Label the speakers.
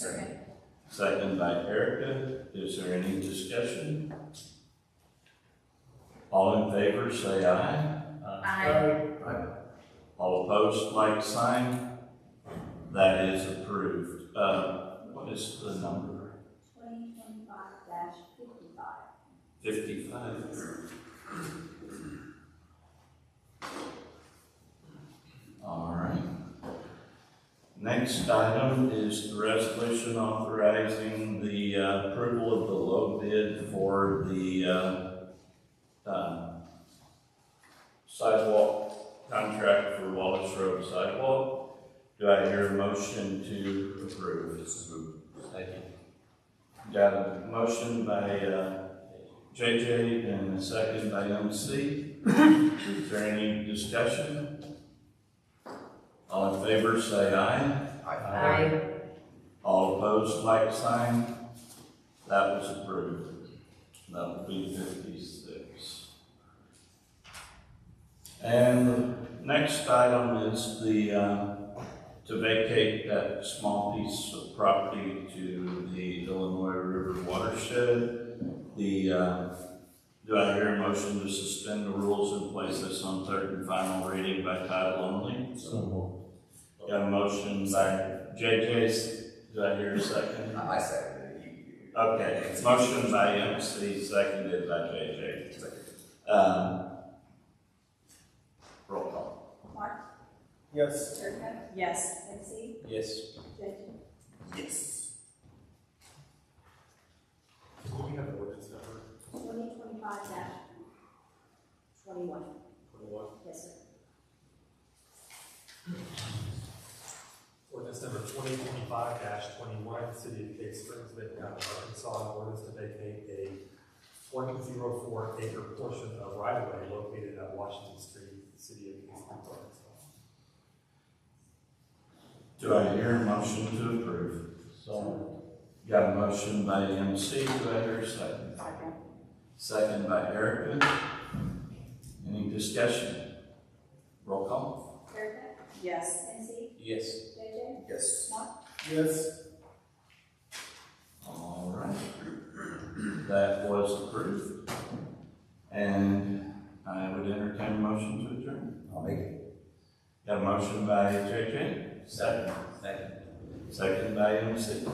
Speaker 1: Second by Erica. Is there any discussion? All in favor, say aye.
Speaker 2: Aye.
Speaker 1: All opposed, like sign. That is approved. Uh, what is the number?
Speaker 2: Twenty twenty-five fifty-five.
Speaker 1: Fifty-five. All right. Next item is the resolution authorizing the uh, approval of the low bid for the uh, uh, sidewalk contract for Wallace Road sidewalk. Do I hear a motion to approve? Second. Got a motion by uh, JJ and a second by MC. Is there any discussion? All in favor, say aye.
Speaker 2: Aye.
Speaker 1: All opposed, like sign. That was approved. That would be fifty-six. And the next item is the, uh, to vacate that small piece of property to the Illinois River watershed. The, uh, do I hear a motion to suspend the rules and place this on third and final reading by title only? Got a motion by JJ, do I hear a second?
Speaker 3: I second it. You- you-
Speaker 1: Okay, motion by MC, seconded by JJ. Um, Roll call.
Speaker 2: Mark,
Speaker 4: Yes.
Speaker 2: Circa,
Speaker 5: Um, Yes.
Speaker 2: Dempsey,
Speaker 1: Yes.
Speaker 2: Jason.
Speaker 3: Yes.
Speaker 4: Do we have an ordinance number?
Speaker 2: Twenty twenty-five twenty-one.
Speaker 4: Twenty-one.
Speaker 2: Yes, sir.
Speaker 4: Ordinance number twenty twenty-five twenty-one, City of Cave Springs, Benton County, Arkansas, an ordinance to vacate a one zero four acre portion of right of way located at Washington Street, City of Cave Springs, Arkansas.
Speaker 1: Do I hear a motion to approve? So. Got a motion by MC, do I hear a second?
Speaker 2: Second.
Speaker 1: Second by Erica. Any discussion? Roll call.
Speaker 2: Circa,
Speaker 5: Yes.
Speaker 2: Dempsey,
Speaker 1: Yes.
Speaker 2: JJ,
Speaker 3: Yes.
Speaker 2: Mark,
Speaker 4: Yes.
Speaker 1: All right. That was approved. And I would entertain a motion to adjourn.
Speaker 3: I'll make it.
Speaker 1: Got a motion by JJ? Second. Second. Second by MC.